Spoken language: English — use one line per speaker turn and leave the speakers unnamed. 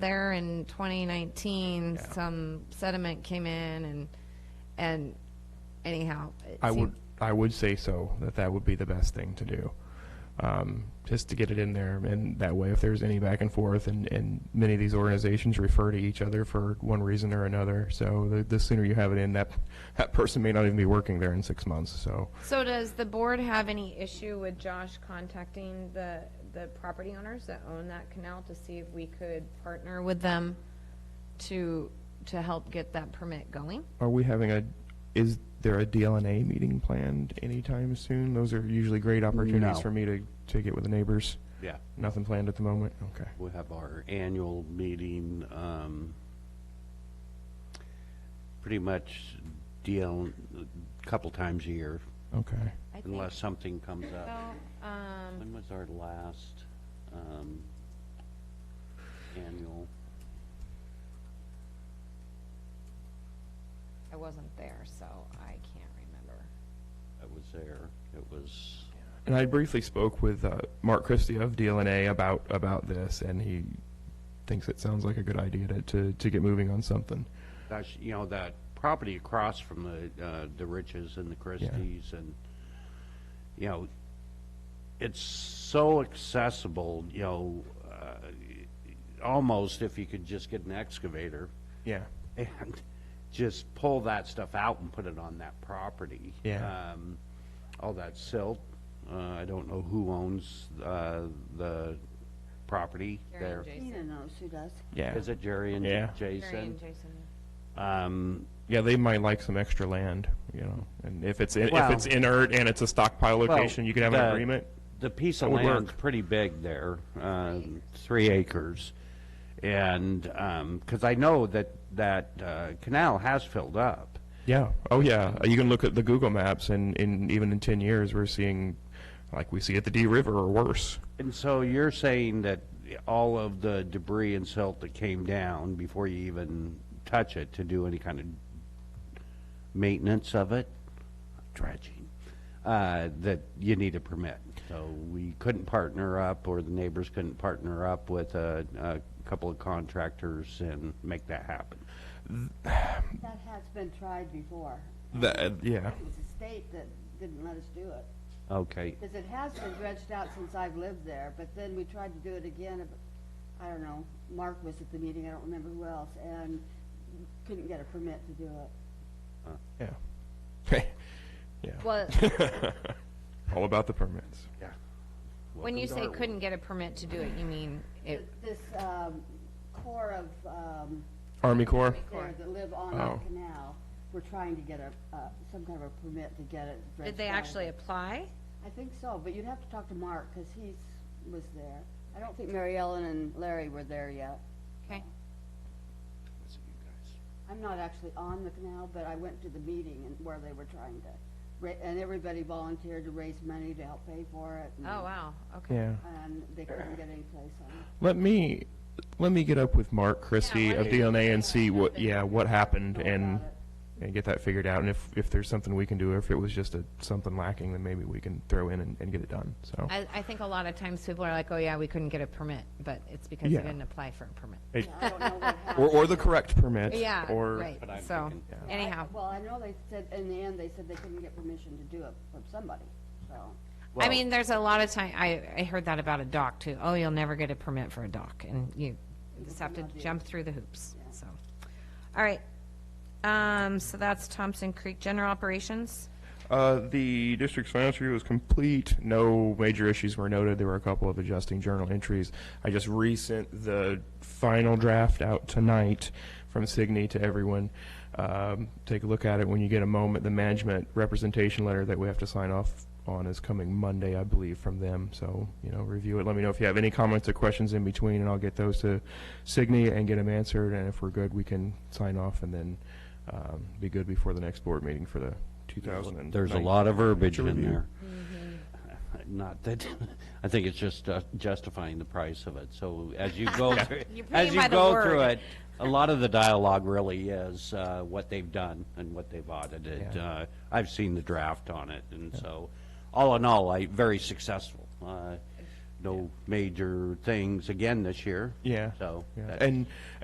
there in 2019, some sediment came in and, and anyhow. it
I
seemed-
would, I would say so, that that would be the best thing to do. Um, just to get it in there, and that way, if there's any back and forth, and, and many of these organizations refer to each other for one reason or another, so the, the sooner you have it in, that, that person may not even be working there in six months, so.
So does the board have any issue with Josh contacting the, the property owners that own that canal to see if we could partner with them to, to help get that permit going?
Are we having a, is there a DLNA meeting planned anytime soon? Those are usually great opportunities
No.
for me to, to get with the neighbors.
Yeah,
Nothing planned at the moment? Okay.
we'll have our annual meeting, um, pretty much deal, a couple times a year,
Okay.
I think
unless something comes
so,
up.
um,
When was our last, um, annual?
I wasn't there, so I can't remember.
I was there, it was,
And I briefly spoke with uh, Mark Christie of DLNA about about this, and he thinks it sounds like a good idea to, to, to get moving on something.
gosh, you know, that property across from the, uh, the Riches and the Christie's and, you know, it's so accessible, you know, uh, almost if you could just get an excavator
Yeah.
and just pull that stuff out and put it on that property.
Yeah.
Um, all that silt, uh, I don't know who owns, uh, the property
Jerry
there.
and
Is
Jason.
Nina knows who does.
Yeah.
it Jerry and
Yeah.
Jason?
Jerry and Jason.
Um,
yeah, they might like some extra land, you know. And if it's in,
Well-
if it's inert and it's a stockpile
Well,
location, you could have an
the-
agreement.
The piece of
would work.
land's pretty big there, um, three acres. And, because I know that, that uh, canal has filled up.
Yeah. Oh yeah. You can look at the Google Maps, and in even in ten years, we're seeing, like we see at the D River or worse.
And so you're saying that all of the debris and silt that came down before you even touch it to do any kind of maintenance of it, dredging, uh, that you need a permit. So we couldn't partner up, or the neighbors couldn't partner up with a, a couple of contractors and make that happen.
That has been tried before.
That yeah.
It was the state that didn't let us do it.
Okay,
Because it has been dredged out since I've lived there, but then we tried to do it again, but, I don't know, Mark was at the meeting, I don't remember who else, and couldn't get a permit to do it.
Yeah. yeah.
Well,
All about the permits.
when you say
Welcome to
couldn't get a permit to do it, you mean it,
This, um, core of, um,
Army Corps.
there
Corps.
that live on
Oh.
that canal, were trying to get a, uh, some kind of a permit to get it dredged out.
did they actually apply?
I think so, but you'd have to talk to Mark, because he's, was there. I don't think Mary Ellen and Larry were there yet.
Okay.
see you guys.
I'm not actually on the canal, but I went to the meeting and where they were trying to, ra- and everybody volunteered to raise money to help pay for it. and-
Oh, wow, okay.
Yeah.
And they couldn't get any place on it.
Let me, let me get up with Mark Christie
why
of
don't you
DNA and see what,
happened?
yeah, what happened
Know
and,
about it.
and get that figured out. And if, if there's something we can do, or if it was just a, something lacking, then maybe we can throw in and, and get it done, so.
I, I think a lot of times people are like, oh, yeah, we couldn't get a permit, but it's because they
Yeah.
didn't apply for a permit.
I don't know what
Or,
happened.
or the correct permit.
Yeah,
or-
right,
But I'm
so,
thinking-
I-
anyhow.
Well, I know they said, in the end, they said they couldn't get permission to do it from somebody, so.
I
Well-
mean, there's a lot of time, I, I heard that about a dock too. Oh, you'll never get a permit for a dock and you just have to jump through the hoops, so. All right, um, so that's Thompson Creek General Operations.
Uh, the district's financial review was complete. No major issues were noted. There were a couple of adjusting journal entries. I just resent the final draft out tonight from Signy to everyone. Um, take a look at it when you get a moment. The management representation letter that we have to sign off on is coming Monday, I believe, from them. So, you know, review it. Let me know if you have any comments or questions in between, and I'll get those to Signy and get them answered. And if we're good, we can sign off and then um, be good before the next board meeting for the 2000.
There's a lot of verbiage in
review.
there. Not that, I think it's just uh, justifying the price of it. So as you go, through-
You're paying
as
by
you
the
go
word.
through it, a lot of the dialogue really is uh, what they've done and what they've audited.
Yeah.
Uh, I've seen the draft on it, and so, all in all, I, very successful. Uh,
no major things again this year.
Yeah.
So.
Yeah.
that's-
And